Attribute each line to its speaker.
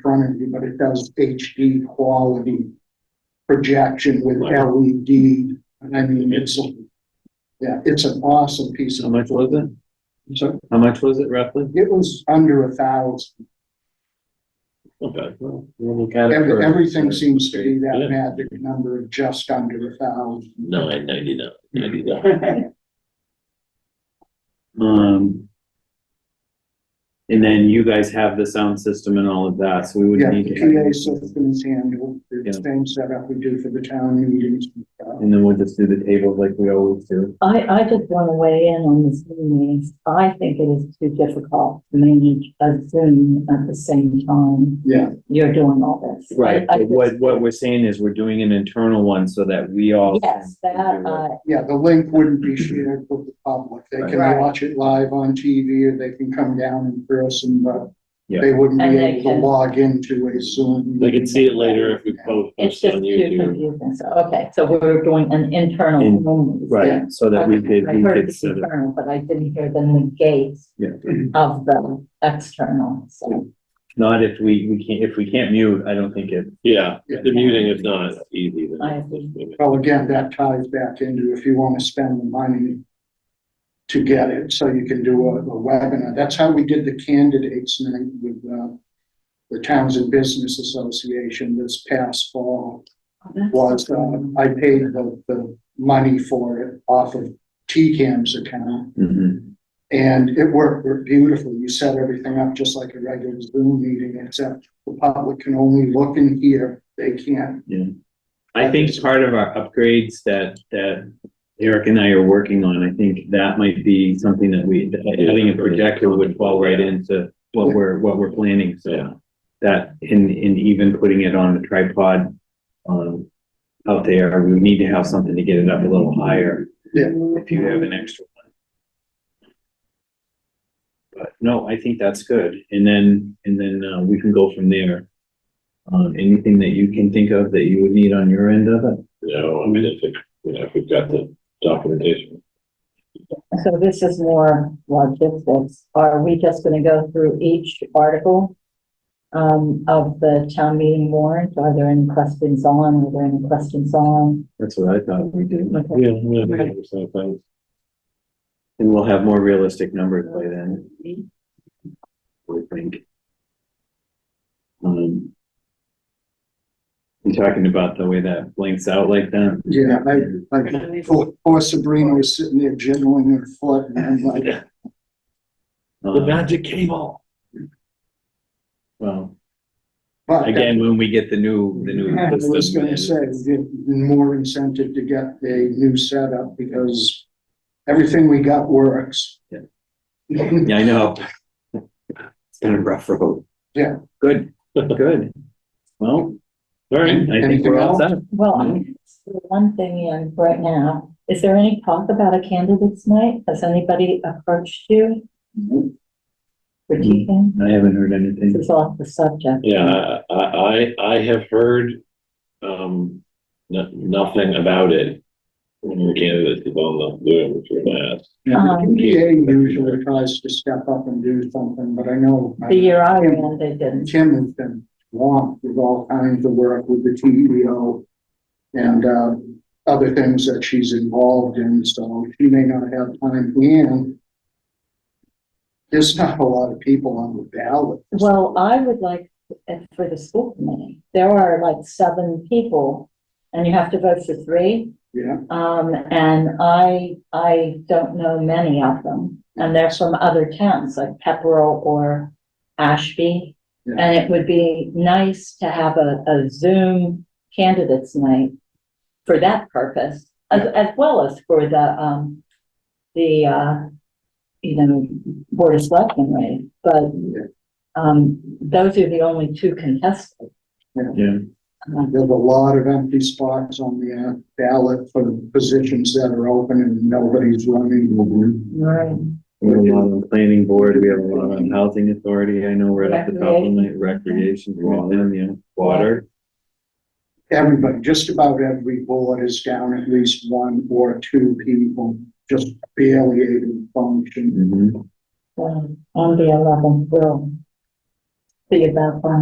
Speaker 1: front of you, but it does HD quality projection with
Speaker 2: Right.
Speaker 1: LED. And I mean, it's, a- yeah, it's an awesome piece
Speaker 2: How
Speaker 1: of,
Speaker 2: much was it?
Speaker 1: so
Speaker 2: How much was it roughly?
Speaker 1: it was under a thousand.
Speaker 2: Okay. well, we'll look at it
Speaker 1: Every-
Speaker 2: for-
Speaker 1: Everything seems to be that
Speaker 2: Yeah.
Speaker 1: magic number of just under a thousand.
Speaker 2: Nine ninety-nine, ninety-nine. Um. And then you guys have the sound system and all of that, so we would
Speaker 1: Yeah,
Speaker 2: not need
Speaker 1: the
Speaker 2: to.
Speaker 1: PA system is handled,
Speaker 2: Yeah.
Speaker 1: the same setup we do for the town meetings. and stuff.
Speaker 2: And then we'll just do the tables like we always do.
Speaker 3: I, I just want to weigh in on this meeting. I think it is too difficult to manage a Zoom at the same time
Speaker 1: Yeah,
Speaker 3: you're doing all this.
Speaker 2: Right,
Speaker 3: I- I
Speaker 2: but what, what we're saying is we're doing an internal one so that we all.
Speaker 3: just- Yes,
Speaker 2: can
Speaker 3: that,
Speaker 2: do it.
Speaker 3: uh,
Speaker 1: yeah, the link wouldn't be shared with the public. They can
Speaker 3: Right.
Speaker 1: watch it live on TV or they can come down in person, but
Speaker 2: Yeah.
Speaker 1: they wouldn't
Speaker 3: And
Speaker 1: be
Speaker 3: they
Speaker 1: able to
Speaker 3: can-
Speaker 1: log into a Zoom.
Speaker 4: They can see it later if we both
Speaker 3: it's
Speaker 4: post
Speaker 3: just
Speaker 4: it on
Speaker 3: too
Speaker 4: YouTube.
Speaker 3: confusing. So, okay, so we're doing an internal
Speaker 2: In-
Speaker 3: only.
Speaker 2: Right,
Speaker 3: Yeah.
Speaker 2: so that we
Speaker 3: Okay,
Speaker 2: could,
Speaker 3: I
Speaker 2: we
Speaker 3: heard
Speaker 2: could,
Speaker 3: it's
Speaker 2: so that-
Speaker 3: internal, but I didn't hear the negate
Speaker 2: Yeah.
Speaker 3: of the external, so.
Speaker 2: not if we, we can't, if we can't mute, I don't think it,
Speaker 4: Yeah,
Speaker 1: Yeah.
Speaker 4: the muting is not easy. then.
Speaker 3: I agree.
Speaker 1: Well, again, that ties back into if you want to spend the money to get it, so you can do a a webinar. That's how we did the candidates night with uh, the Townsend Business Association this past fall. was, um, I paid the, the money for it off of TCAM's account.
Speaker 3: Mm-hmm.
Speaker 2: Mhm.
Speaker 1: And it worked beautifully. You set everything up just like a regular Zoom meeting, except the public can only look and hear. They can't.
Speaker 2: I think part of our upgrades that, that Eric and I are working on, I think that might be something that we, that having a projector would fall right into what we're, what we're planning,
Speaker 4: Yeah.
Speaker 2: so. That, in, in even putting it on the tripod, um, out there, we need to have something to get it up a little higher.
Speaker 1: Yeah.
Speaker 2: If you have an extra one. But no, I think that's good, and then, and then, uh, we can go from there. Um, anything that you can think of that you would need on your end of it?
Speaker 4: You know, I mean, if, it- you know, if we've got the documentation.
Speaker 3: So this is more logistics. Are we just gonna go through each article? Um, of the town meeting warrant? Are there any questions on? Are there any questions on?
Speaker 2: That's what I thought we did.
Speaker 3: Okay.
Speaker 4: Yeah. yeah, yeah, it's not bad.
Speaker 2: And we'll have more realistic numbers by then. We think. Um. You talking about the way that blinks out like that?
Speaker 1: Yeah, I, like, poor- poor Sabrina was sitting there jiggling her foot and I'm like,
Speaker 4: The
Speaker 2: Um,
Speaker 4: magic cable.
Speaker 2: Well,
Speaker 1: but.
Speaker 2: again, when we get the new, the new.
Speaker 1: I was
Speaker 2: system,
Speaker 1: gonna say, give more incentive to get a new setup because everything we got works.
Speaker 2: Yeah. Yeah, I know. It's been a rough road.
Speaker 1: Yeah.
Speaker 2: Good, good. Well,
Speaker 4: All right,
Speaker 2: I think we're all set.
Speaker 3: Well, I'm- so one thing in right now, is there any talk about a candidates night? Has anybody approached you? For teaching?
Speaker 2: I haven't heard
Speaker 3: This
Speaker 2: anything.
Speaker 3: is off the subject.
Speaker 4: yeah, I, I, I have heard, um, no, nothing about it. When the candidate is on the Zoom, which we're asked.
Speaker 1: Yeah,
Speaker 3: Um,
Speaker 1: The PA usually tries to step up and do something, but I know
Speaker 3: The
Speaker 1: my-
Speaker 3: year I ran, they didn't.
Speaker 1: Tim has been swamped with all kinds of work with the TEO and, uh, other things that she's involved in, so she may not have time and there's not a lot of people on the ballot.
Speaker 3: Well, I would like, uh, for the school committee, there are like seven people, and you have to vote for three.
Speaker 1: Yeah,
Speaker 3: Um, and I, I don't know many of them, and they're from other towns, like Pepperell or Ashby.
Speaker 1: Yeah.
Speaker 3: And it would be nice to have a, a Zoom candidates night for that purpose, as, as well as for the, um, the, uh, you know, Board of Selectmen, right?
Speaker 1: Yeah.
Speaker 3: But, um, those are the only two contested.
Speaker 2: Yeah.
Speaker 3: Um,
Speaker 1: There's a lot of empty spots on the uh, ballot for the positions that are open and nobody's running.
Speaker 3: Right.
Speaker 2: We have a lot on planning board, we have a lot on housing authority, I know we're at the top of the night, recreation, water, yeah, water.
Speaker 1: Everybody, just about every board is down at least one or two people, just barely able to function.
Speaker 2: Mhm.
Speaker 3: Um, on the eleventh, we'll see about that.